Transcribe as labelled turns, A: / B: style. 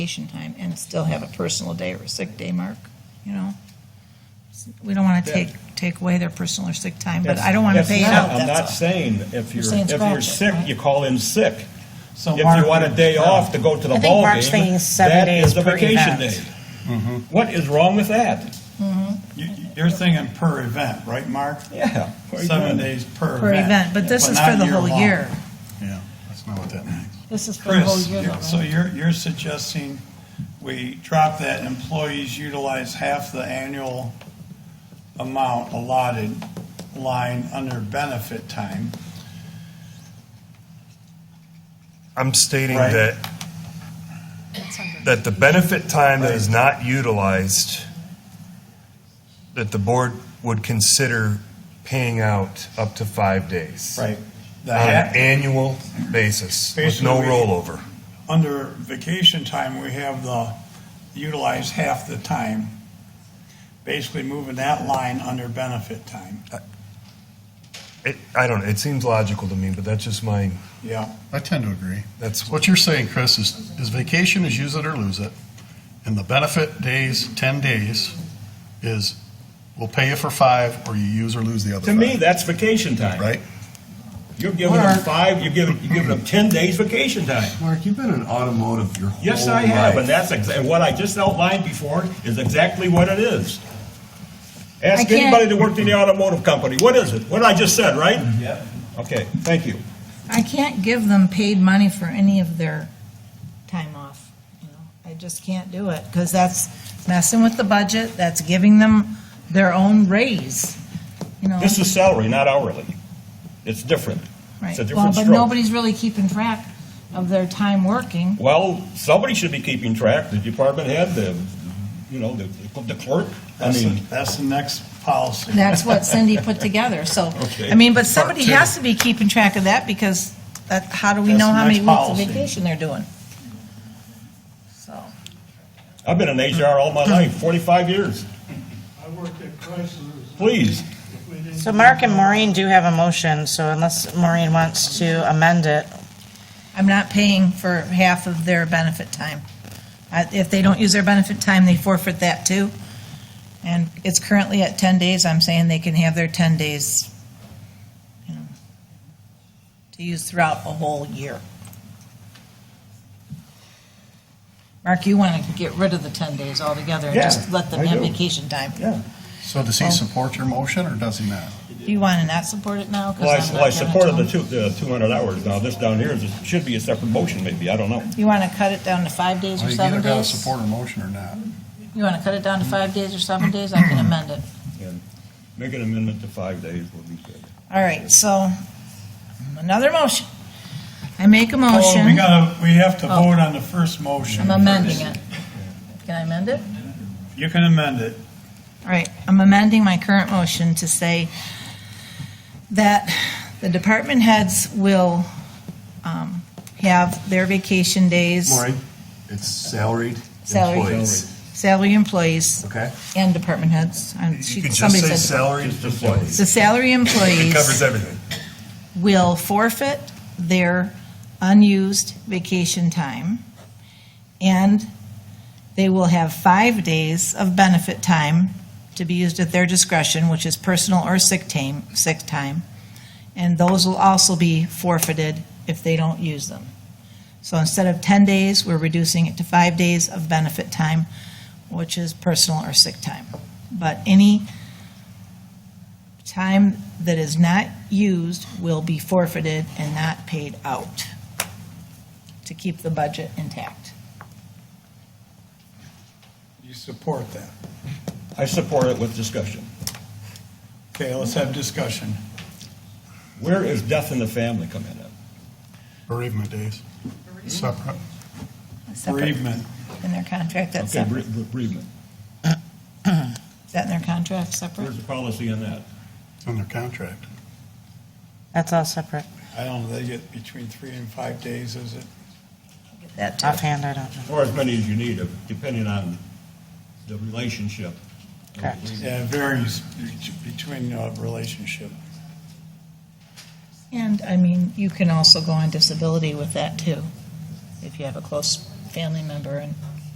A: vacation time and still have a personal day or a sick day, Mark, you know? We don't want to take, take away their personal or sick time, but I don't want to
B: That's-
A: pay it
B: that's
A: out,
B: not- I'm
A: that's all.
B: not saying if you're,
A: saying
B: if
A: scratch
B: you're
A: it,
B: sick,
A: right?
B: you call in sick.
C: So
B: If you
C: Mark-
B: want a day off to go to the
D: I think
B: ball
D: Mark's
B: game,
D: thinking seven
B: that
D: days
B: is a
D: per
B: vacation
D: event.
B: day.
E: Mm-hmm.
B: What is wrong with that?
C: You- You're thinking per event, right, Mark?
B: Yeah.
C: Seven days per event.
A: Per event, but this is
C: not
A: for the whole
C: year-long.
A: year.
F: Yeah, that's not what that means.
A: This is for the whole
C: Chris,
A: year,
C: you're-
A: though,
C: so
A: right?
C: you're, you're suggesting we drop that and employees utilize half the annual amount allotted line under benefit time.
G: I'm stating
C: Right.
G: that, that the benefit time that is not utilized, that the board would consider paying out up to five days.
C: The
G: On
C: half,
G: an annual basis, with no
C: Basically-
G: rollover.
C: under vacation time, we have the utilize half the time. Basically moving that line under benefit time.
G: It, I don't know, it seems logical to me, but that's just my,
C: Yeah.
F: I tend to agree.
G: that's what,
F: What you're saying, Chris, is, is vacation is use it or lose it, and the benefit days, 10 days, is we'll pay you for five, or you use or lose the other
B: To me,
F: five,
B: that's vacation time.
F: right?
B: You're giving them five, you're giving, you're giving them ten days vacation time.
E: Mark, you've been in automotive your whole
B: Yes, I have,
E: life.
B: and that's, exa- and what I just outlined before is exactly what it is.
A: I
B: Ask
A: can't-
B: anybody that worked in the automotive company, what is it? What I just said, right? Yeah. Okay, thank you.
A: I can't give them paid money for any of their time off. you know. I just can't do it, because that's messing with the budget, that's giving them their own raise, you know?
B: This is salary, not hourly. It's different.
A: Right.
B: It's a
A: Well,
B: different
A: but
B: stroke.
A: nobody's really keeping track of their time working.
B: Well, somebody should be keeping track, the department head, the, you know, the the clerk. I
C: That's, the-
B: mean,
C: that's the next policy.
A: That's what Cindy put together, so,
B: Okay.
A: I mean, but somebody
B: two.
A: has to be keeping track of that, because that, how do we
C: That's
A: know
C: the
A: how many
C: next
A: weeks of
C: policy.
A: vacation they're doing? So,
B: I've been in HR all my life, 45 years.
H: I worked at Chrysler's.
B: Please.
H: If we didn't
D: So Mark and Maureen do have a motion, so unless Maureen wants to amend it,
A: I'm not paying for half of their benefit time. I- If they don't use their benefit time, they forfeit that too. And it's currently at 10 days, I'm saying they can have their 10 days, you know, to use throughout a whole year. Mark, you want to get rid of the 10 days altogether and just
B: Yeah,
A: let them
B: I
A: have
B: do.
A: vacation time?
B: Yeah.
F: So does he support your motion, or does he not?
A: Do you want to not support it now? 'Cause
B: Well, I-
A: I'm not
B: well, I
A: gonna
B: supported
A: tell
B: the
A: them.
B: two, the 200 hours. Now, this down here is, should be a separate motion maybe, I don't know.
A: You want to cut it down to five days
F: Well,
A: or
F: you
A: seven
F: either gotta
A: days?
F: support a motion or not.
A: You want to cut it down to five days or seven days? I can amend it.
B: And Make an amendment to five days would be good.
A: All right, so another motion. I make a
C: Oh, we
A: motion.
C: gotta, we have to
A: Oh.
C: vote on the first motion.
A: I'm amending it. Can I amend it?
C: You can amend it.
A: All right, I'm amending my current motion to say that the department heads will um, have their vacation days,
E: Maureen, it's salaried
A: salary,
E: employees.
A: salary employees
E: Okay?
A: and department heads. And
G: you
A: she-
G: could just
A: somebody
G: say
A: said-
G: salaried employees.
A: The salary
G: It covers
A: employees
G: everything.
A: will forfeit their unused vacation time, and they will have five days of benefit time to be used at their discretion, which is personal or sick time, sick time, and those will also be forfeited if they don't use them. So instead of 10 days, we're reducing it to five days of benefit time, which is personal or sick time. But any time that is not used will be forfeited and not paid out to keep the budget intact.
C: You support that.
B: I support it with discussion.
C: Okay, let's have discussion.
B: Where is death in the family come in at?
F: Bereavement days. Separate.
A: Separate
C: Bereavement.
A: In their contract, that's
B: Okay,
A: separate.
B: bere- bereavement.
A: Is that in their contract, separate?
B: Where's the policy on that?
F: It's in their contract.
D: that's all separate.
C: I don't know, they get between three and five days, is it?
A: That too.
D: Offhand, I don't know.
B: Or as many as you need, depending on the relationship.
D: Correct.
C: Yeah, it varies bet- between uh, relationship.
A: And, I mean, you can also go on disability with that too, if you have a close family member and